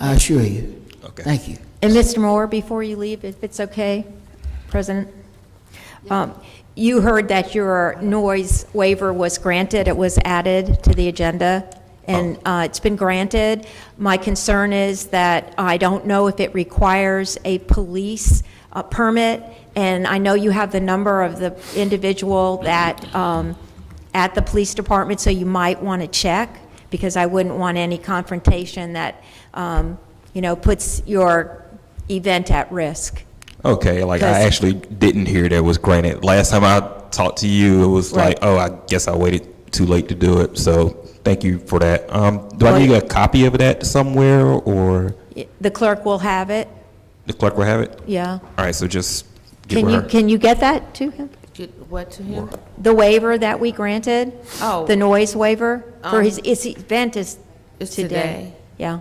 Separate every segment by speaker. Speaker 1: I assure you.
Speaker 2: Okay.
Speaker 1: Thank you.
Speaker 3: And Mr. Moore, before you leave, if it's okay, President, um, you heard that your noise waiver was granted, it was added to the agenda, and uh, it's been granted. My concern is that I don't know if it requires a police uh, permit, and I know you have the number of the individual that um, at the police department, so you might want to check, because I wouldn't want any confrontation that, um, you know, puts your event at risk.
Speaker 2: Okay, like I
Speaker 3: Because-
Speaker 2: actually didn't hear that was granted. Last time I talked to you, it was
Speaker 3: Right.
Speaker 2: like, oh, I guess I waited too late to do it. So thank you for that. Um, do I
Speaker 3: Well-
Speaker 2: need a copy of that somewhere or
Speaker 3: The clerk will have it,
Speaker 2: the clerk will have it?
Speaker 3: yeah.
Speaker 2: All right, so just get
Speaker 3: Can you,
Speaker 2: with her.
Speaker 3: can you get that to him?
Speaker 4: Did what to him?
Speaker 3: The waiver that we granted?
Speaker 4: Oh. Um,
Speaker 3: The noise waiver for his, his event is
Speaker 4: It's
Speaker 3: today.
Speaker 4: today.
Speaker 3: Yeah.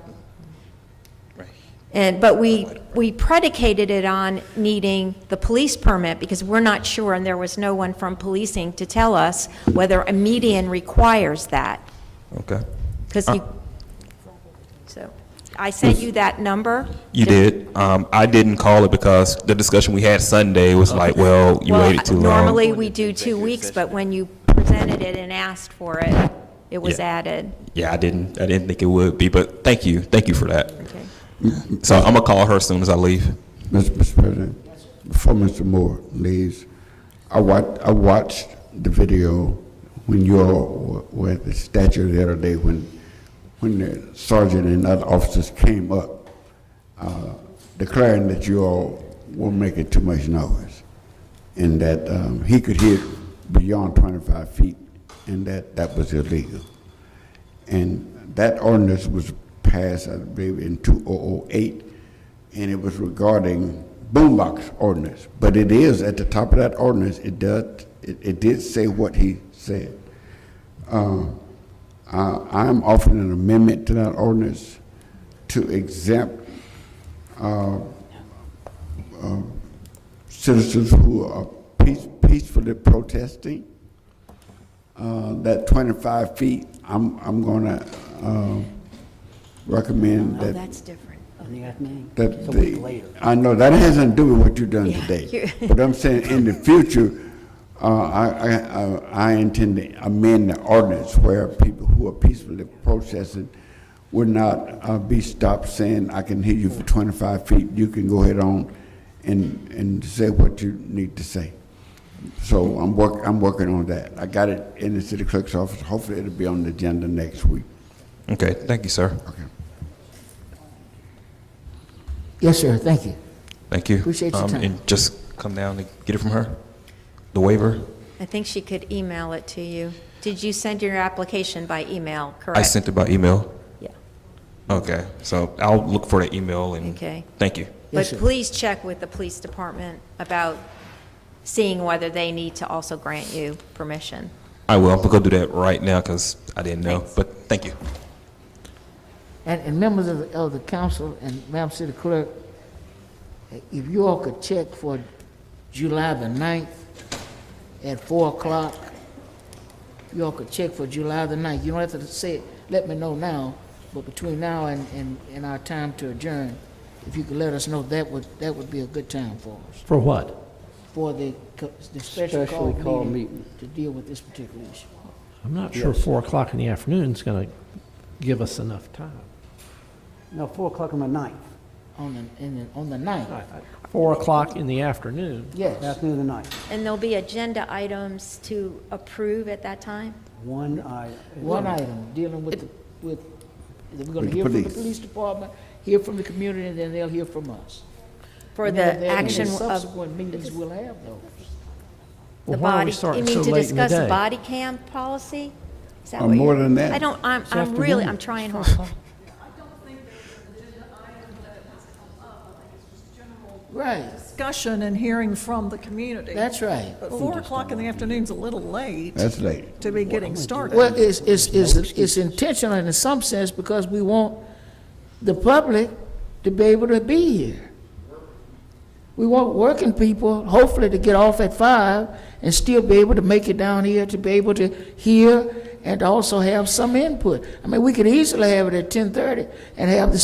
Speaker 3: And, but we, we predicated it on needing the police permit because we're not sure, and there was no one from policing to tell us whether a median requires that.
Speaker 2: Okay.
Speaker 3: Because
Speaker 2: Uh.
Speaker 3: you, so, I sent you that number.
Speaker 2: You did. Um, I didn't call it because the discussion we had Sunday was like, well, you
Speaker 3: Well,
Speaker 2: waited too long.
Speaker 3: Normally, we do two weeks, but when you presented it and asked for it, it was
Speaker 2: Yeah.
Speaker 3: added.
Speaker 2: Yeah, I didn't. I didn't think it would be, but thank you. Thank you for that.
Speaker 3: Okay.
Speaker 2: So I'm gonna call her as soon as I leave.
Speaker 5: Mr. Mr. President, before Mr. Moore leaves, I wa- I watched the video when you all were at the statue the other day, when, when the sergeant and other officers came up uh, declaring that you all were making too much noise, and that um, he could hear beyond 25 feet, and that that was illegal. And that ordinance was passed, I believe, in 2008, and it was regarding boombox ordinance. But it is, at the top of that ordinance, it does, it, it did say what he said. Uh, I am offering an amendment to that ordinance to exempt uh, uh, citizens who are peace- peacefully protesting uh, that 25 feet, I'm, I'm going to recommend that,
Speaker 3: different.
Speaker 5: that the, I know, that hasn't to do with what you've done
Speaker 3: Yeah,
Speaker 5: today.
Speaker 3: you-
Speaker 5: But I'm saying, in the future, uh, I, I- I, I intend to amend the ordinance where people who are peacefully protesting would not uh, be stopped saying, I can hear you for 25 feet, you can go ahead on and, and say what you need to say. So I'm work, I'm working on that. I got it in the city clerk's office. Hopefully it'll be on the agenda next week.
Speaker 2: Okay, thank you, sir.
Speaker 5: Okay.
Speaker 1: Yes, sir, thank you.
Speaker 2: Thank you.
Speaker 1: Appreciate your
Speaker 2: Um,
Speaker 1: time.
Speaker 2: And just come down and get it from her, the waiver.
Speaker 3: I think she could email it to you. Did you send your application by email, correct?
Speaker 2: I sent it by email.
Speaker 3: Yeah.
Speaker 2: Okay, so I'll look for the email and.
Speaker 3: Okay.
Speaker 2: Thank you.
Speaker 3: But please check with the police department about seeing whether they need to also grant you permission.
Speaker 2: I will. I'm gonna go do that right now because I didn't know,
Speaker 3: Thanks.
Speaker 2: but thank you.
Speaker 1: And, and members of, the- of the council and Madam City Clerk, if you all could check for July the 9th at 4 o'clock, you all could check for July the 9th. You don't have to say, it. let me know now, but between now and, and, and our time to adjourn, if you could let us know, that would, that would be a good time for us,
Speaker 6: For what?
Speaker 1: for the, co- the special
Speaker 7: Specially
Speaker 1: call
Speaker 7: called
Speaker 1: meeting
Speaker 7: meeting.
Speaker 1: to deal with this particular issue.
Speaker 6: I'm not sure four o'clock in the afternoon is going to give us enough time.
Speaker 7: No, 4 o'clock on the 9th,
Speaker 1: On the, in the, on the 9th.
Speaker 6: Four o'clock in the afternoon.
Speaker 1: Yes,
Speaker 7: afternoon of the 9th.
Speaker 3: And there'll be agenda items to approve at that time?
Speaker 7: One I.
Speaker 1: one item, dealing with, the with, we're gonna hear from the
Speaker 5: police.
Speaker 1: police department, hear from the community, and then they'll hear from us.
Speaker 3: For
Speaker 1: And then
Speaker 3: the
Speaker 1: there- and
Speaker 3: action
Speaker 1: the
Speaker 3: of
Speaker 1: Subsequent meetings we'll have those.
Speaker 3: the
Speaker 6: Well, why are
Speaker 3: body,
Speaker 6: we
Speaker 3: you
Speaker 6: starting so
Speaker 3: mean to
Speaker 6: late in the
Speaker 3: discuss the
Speaker 6: day?
Speaker 3: body cam policy? Is that
Speaker 5: Uh,
Speaker 3: what
Speaker 5: more
Speaker 3: you're-
Speaker 5: than that.
Speaker 3: I don't, I'm, I'm really, I'm trying hard.
Speaker 1: Right,
Speaker 8: discussion and hearing from the community.
Speaker 1: that's right.
Speaker 8: But four o'clock in the afternoon's a little late
Speaker 5: That's late.
Speaker 8: to be getting started.
Speaker 1: Well, it's, it's, it's, it's intentional in some sense because we want the public to be able to be here. We want working people, hopefully, to get off at five and still be able to make it down here, to be able to hear and also have some input. I mean, we could easily have it at ten-thirty and have the